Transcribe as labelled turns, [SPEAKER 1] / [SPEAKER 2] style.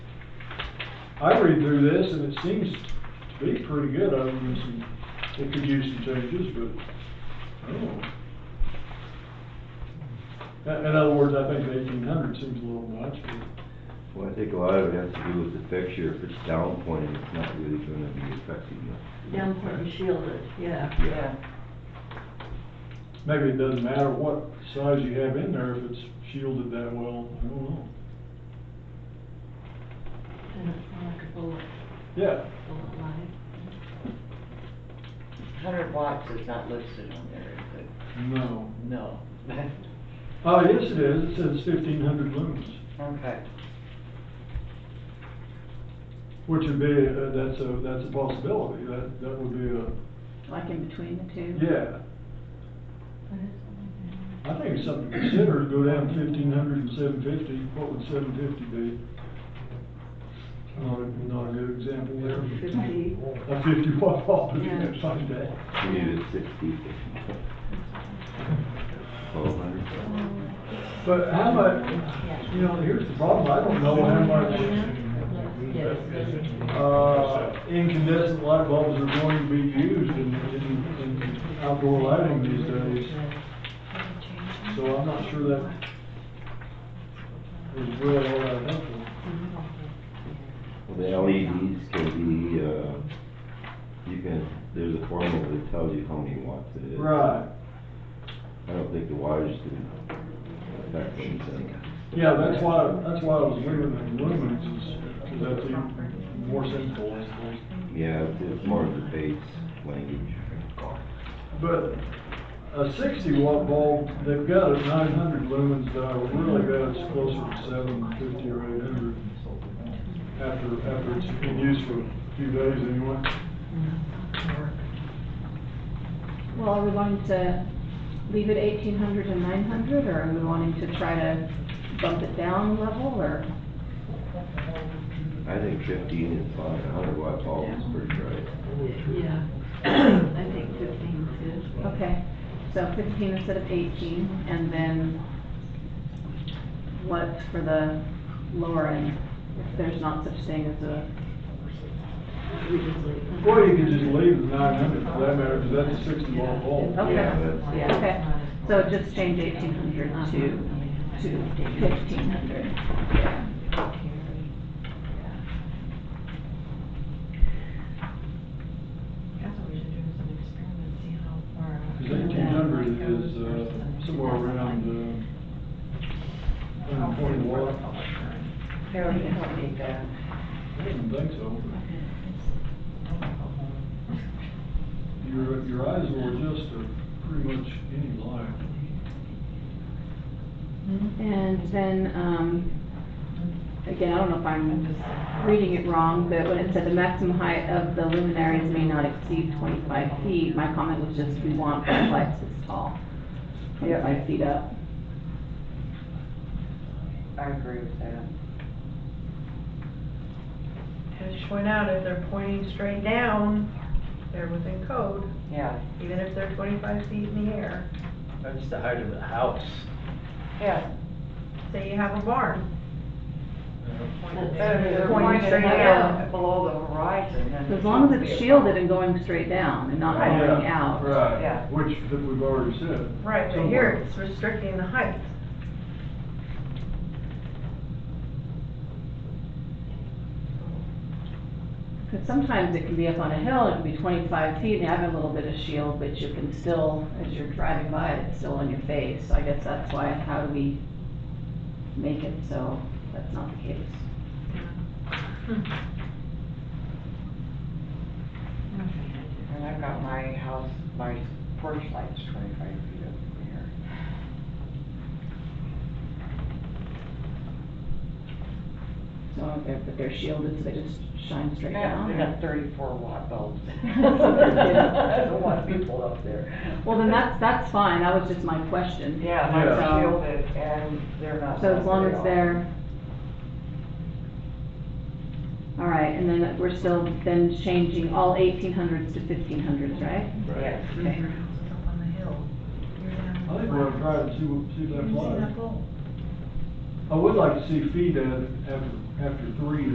[SPEAKER 1] I read through this and it seems to be pretty good, other than some, it could use some changes, but, I don't know. In, in other words, I think eighteen hundred seems a little much, but,
[SPEAKER 2] Well, I think a lot of it has to do with the fixture, if it's down pointing, it's not really gonna be affecting the.
[SPEAKER 3] Down and shielded, yeah.
[SPEAKER 2] Yeah.
[SPEAKER 1] maybe it doesn't matter what size you have in there if it's shielded that well, I don't know.
[SPEAKER 3] And it's not like a bullet,
[SPEAKER 1] Yeah,
[SPEAKER 3] bullet light.
[SPEAKER 4] Hundred watts is not listed on there, is
[SPEAKER 1] no.
[SPEAKER 4] it? No.
[SPEAKER 1] Oh, yes it is, it says fifteen hundred lumens,
[SPEAKER 4] Okay.
[SPEAKER 1] which would be, uh, that's a, that's a possibility, that, that would be a,
[SPEAKER 5] Like in between the two?
[SPEAKER 1] yeah.
[SPEAKER 3] But it's only down.
[SPEAKER 1] I think it's something to consider, go down fifteen hundred and seven fifty, what would seven fifty be? Not a, not a good example there.
[SPEAKER 5] Fifty.
[SPEAKER 1] A fifty watt bulb, you
[SPEAKER 3] Yeah.
[SPEAKER 1] can find that.
[SPEAKER 2] We need it sixty. Twelve hundred.
[SPEAKER 1] But how much, you know, here's the problem, I don't know how much, uh, incandescent light bulbs are going to be used in, in, in outdoor lighting these days. So I'm not sure that is really all that helpful.
[SPEAKER 2] Well, the LEDs can be, uh, you can, there's a formula that tells you how many watts it is.
[SPEAKER 1] Right,
[SPEAKER 2] I don't think the wattage can affect anything.
[SPEAKER 1] yeah, that's why, that's why I was limiting the lumens is, cause that's even more sensible, I suppose.
[SPEAKER 2] Yeah, it's- it's more of the base language.
[SPEAKER 1] But a sixty watt bulb, they've got a nine hundred lumens that are really bad, it's closer to seven fifty or eight hundred. After, after it's been used for a few days anyway.
[SPEAKER 5] Well, are we wanting to leave it eighteen hundred and nine hundred, or are we wanting to try to bump it down a level, or?
[SPEAKER 2] I think fifteen is fine, a hundred watt bulb is pretty bright.
[SPEAKER 3] Yeah, I think fifteen's good.
[SPEAKER 5] Okay, so fifteen instead of eighteen, and then what for the lower end, if there's not such thing as a,
[SPEAKER 3] We just leave.
[SPEAKER 1] Or you could just leave the nine hundred for that matter, cause that's a sixty watt bulb.
[SPEAKER 5] Okay.
[SPEAKER 2] Yeah, that's-
[SPEAKER 3] Yeah.
[SPEAKER 5] okay, so just change eighteen hundred to, to fifteen hundred.
[SPEAKER 6] That's what we should do, is an experiment, see how far.
[SPEAKER 1] Cause eighteen hundred is, uh, somewhere around, uh, hundred twenty watt.
[SPEAKER 4] Harold, you don't need
[SPEAKER 5] uh,
[SPEAKER 4] that.
[SPEAKER 1] I didn't think so. Your, your eyes will adjust to pretty much any light.
[SPEAKER 5] And then, um, again, I don't know if I'm reading it wrong, but when it said the maximum height of the luminaries may not exceed twenty-five feet, my comment was just, we want the lights this tall, twenty-five feet up.
[SPEAKER 4] I agree with that.
[SPEAKER 6] As you point out, if they're pointing straight down, they're within code,
[SPEAKER 4] Yeah,
[SPEAKER 6] even if they're twenty-five feet in the air.
[SPEAKER 7] That's the height of the house.
[SPEAKER 4] yeah.
[SPEAKER 6] Say you have a barn.
[SPEAKER 4] It's better if they're pointing straight out below the horizon than.
[SPEAKER 5] As long as it's shielded and going straight down and not going
[SPEAKER 1] Yeah,
[SPEAKER 5] out.
[SPEAKER 4] Yeah.
[SPEAKER 1] Right, which, that we've already said.
[SPEAKER 6] Right, but here it's restricting the height.
[SPEAKER 5] Because sometimes it can be up on a hill, it can be twenty-five feet and have a little bit of shield, but you can still, as you're driving by, it's still in your face. So I guess that's why, how do we make it so that's not the case?
[SPEAKER 4] And I've got my house, my porch light's twenty-five feet up from here.
[SPEAKER 5] So they're, but they're shielded, so they just shine straight
[SPEAKER 4] Yeah,
[SPEAKER 5] down?
[SPEAKER 4] they got
[SPEAKER 5] or-
[SPEAKER 4] thirty-four watt bulbs.
[SPEAKER 5] Yeah.
[SPEAKER 4] I don't want people up there.
[SPEAKER 5] Well, then that's, that's fine, that was just my question.
[SPEAKER 4] Yeah, they're
[SPEAKER 5] Yeah.
[SPEAKER 4] shielded and they're not.
[SPEAKER 5] So as long
[SPEAKER 4] shielded at
[SPEAKER 5] as
[SPEAKER 4] all.
[SPEAKER 5] they're. All right, and then we're still then changing all eighteen hundreds to fifteen hundreds, right?
[SPEAKER 4] Yes.
[SPEAKER 5] Okay.
[SPEAKER 6] Your house is up on the hill. You're down
[SPEAKER 1] uh, I
[SPEAKER 6] in the
[SPEAKER 1] think we're gonna
[SPEAKER 6] flat.
[SPEAKER 1] try and see what, see if
[SPEAKER 6] You
[SPEAKER 1] that
[SPEAKER 6] see
[SPEAKER 1] flies.
[SPEAKER 6] that pole?
[SPEAKER 1] I would like to see feed at, after, after three